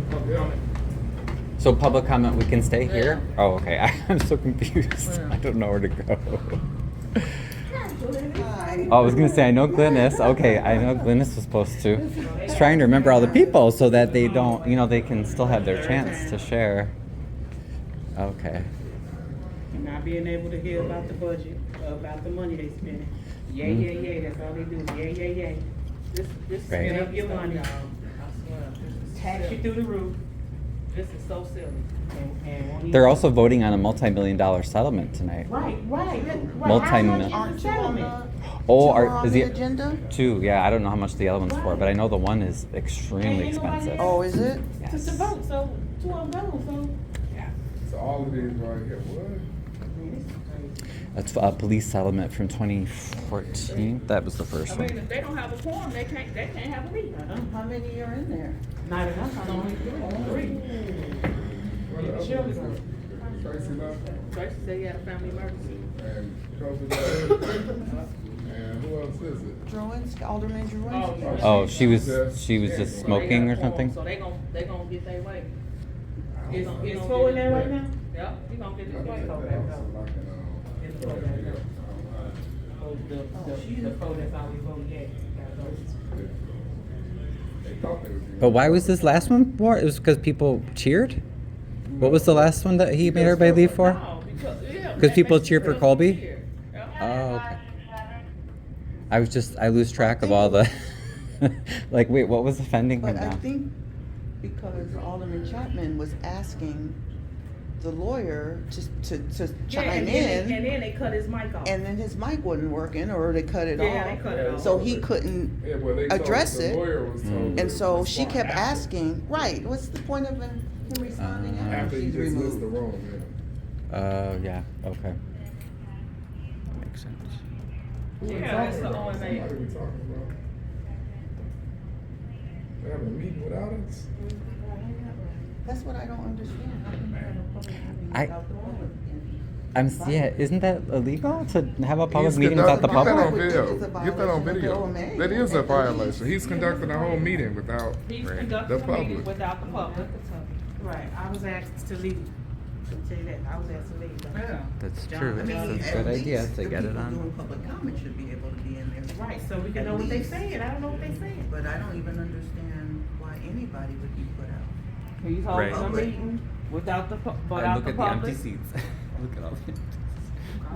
public comment. So public comment, we can stay Yeah. here? Oh, okay. I'm so confused. Yeah. I don't know where to go. Hi. Oh, I was gonna say, I know Glynis. Okay, I know Glynis was supposed to. I was trying to remember all the people so that they don't, you know, they can still have their chance to share. Okay. Not being able to hear about the budget, about the money they spending. Yeah, Mhm. yeah, yeah, that's all they do, yeah, yeah, yeah. This, this Right. spend up your money, I swear, this is tax you silly. through the roof, This is so silly. and, and won't even. They're also voting on a multi-million dollar settlement tonight. Right, right, that- right. How Multi-mil- much is the Aren't you on settlement? the, Oh, you are, on is the it- agenda? Two, yeah, I don't know how much the other one's for, Right. but I know the one is extremely Ain't nobody expensive. else. Oh, is it? Yes. To vote, so, two of them, vote, so. So all of these right here, what? Man, this is crazy. That's a police settlement from 2014. That was the I first mean, one. if they don't have a forum, they can't, they can't have a meeting. Uh-uh. How many are in there? Not enough, I only three. What are the Sure. other ones? Tracy Love Tracy said he had a family emergency. and Kobe Love. And who else is it? Drewinski, Alderman Drewinski. Oh, she was she was just So they got a smoking or forum, something. So they gon' they gon' get their way. Is, is four in there right now? Yep, he gonna get I his way. think that also like an, um, It's yeah, all back yeah, up. um, Oh, the, the, the four that's always voting yes, gotta go. uh, they thought they was gonna- But why was this last one for? It was because people cheered. What was the last one that he made everybody leave for? Oh, No, because, yeah. 'Cause that people makes cheer for sense. Colby? Cheer. Yep. Oh, okay. I was just I lose track of all the. like, wait, what was offending him But I now? think because Alderman Chapman was asking the lawyer to, to, to Yeah, chime and then they- And in, then they cut his mic off. and then his mic wasn't working, or they cut it Yeah, they off. cut it off. So he couldn't, Yeah, well, they told- address the it. lawyer was told and to so she respond kept after- asking, right, what's the point of him him responding Uh, after After he she's dismissed the removed? room, yeah. Uh, yeah, okay. Makes sense. Yeah, that's the Somebody OMA. we talking about? They having a meeting without us? That's what I don't understand. How can you have a public meeting I- without the lawyer? I'm s- yeah. Isn't that illegal to have a public He's meeting conduct- without the get that on public? video. It's a Get that on violation of video. the That is a OMA. violation. He's conducting a whole meeting without He's the conducting a meeting public. without the public. Right, I was asked to leave, to tell you that, I was asked to leave. Yeah. That's John, true. I mean, It's a at good idea least to the get it people on. Doing public comment should be able to be in there. Right, so we can At know what they least. saying, I don't know what they saying. But I don't even understand why anybody would be put out. He's Right. holding a meeting without the, pu- without the public. seats. look at all the empty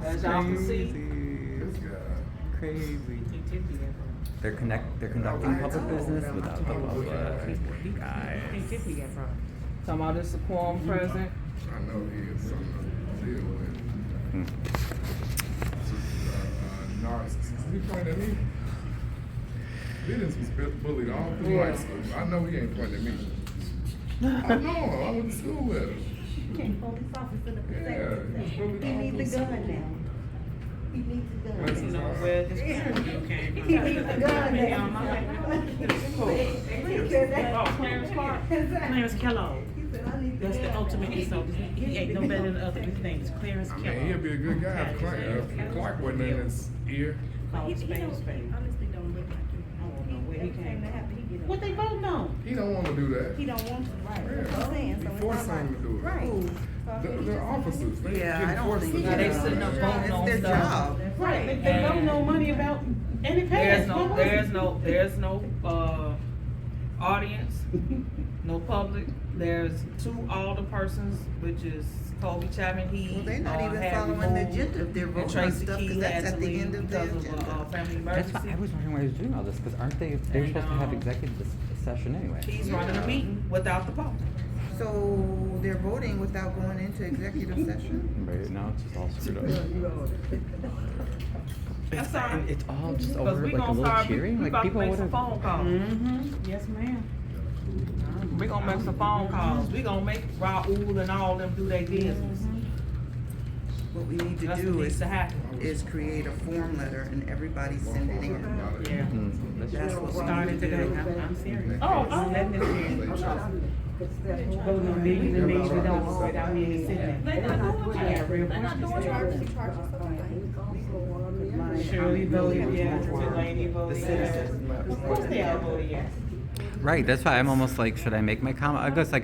As y'all can see. This guy. Crazy. They're connect. They're conducting public business without the public. Guys. Talking about this quorum present. I know he is something to deal with. Hmm. Uh, uh, narcissist. He pointed at me. Dennis was bu- bullied all through high school. I know he ain't pointing at me. I know. I went to school with him. Can't hold his office in the Yeah, he's perspective. bullied He all needs through a school. gun now. He needs a gun. Bless his heart. He needs a gun now. Because Oh, that's- Clarence Kellogg, He said, I need the That's the gun ultimate now." insult. he ain't no better than other, his name is Clarence I mean, he'd be a good guy if Clark, if Clark wasn't in his ear. But he- he don't- he honestly don't look like him. don't know where he Every time came that happen, he get What up. they voting on? He don't want to do that. He don't want to, right, that's what Yeah. I'm saying, so He it's forced not him to right. do it. Right. Who? So, They're, he they're just- officers. They Yeah, I getting don't forced to think do Yeah, that. Now they that's sitting up their voting job. on It's their stuff. job. Right, they, they don't know money about any past. There's no, there's no, there's no, uh, audience, no public. There's two older persons, which is Colby Chapman, he. Well, they're not uh, even had following the removed, agenda if they're and voting on Tracy stuff, 'cause Key that's had at to the leave end of the because of, uh, agenda. uh, That's Family why I emergency. was wondering why he was doing all this because aren't they? They were supposed to have executive dis- session anyway. He's running uh, a meeting without the public. So they're voting without going into executive session? Right now it's just all screwed up. That's all right. And it's all just Because over we like a gonna little start, we cheering. we Like about to people make would some have. phone calls. Mm-hmm, yes, ma'am. We gonna make some phone calls. We gonna make Raoul and all them do their business. What we need to That's do what needs is, to happen. is create a form letter and everybody send it in. Yeah. That's what we Started need to today, do. I'm, I'm serious. Oh, oh. Nothing is serious. Voting on meetings and meetings without, without me even sitting there. They not doing I got it. real They not questions. doing it. Shirley voted yes, Delaney voted yes. Of course they all voted yes. Right. That's why I'm almost like, should I make my comment? I guess I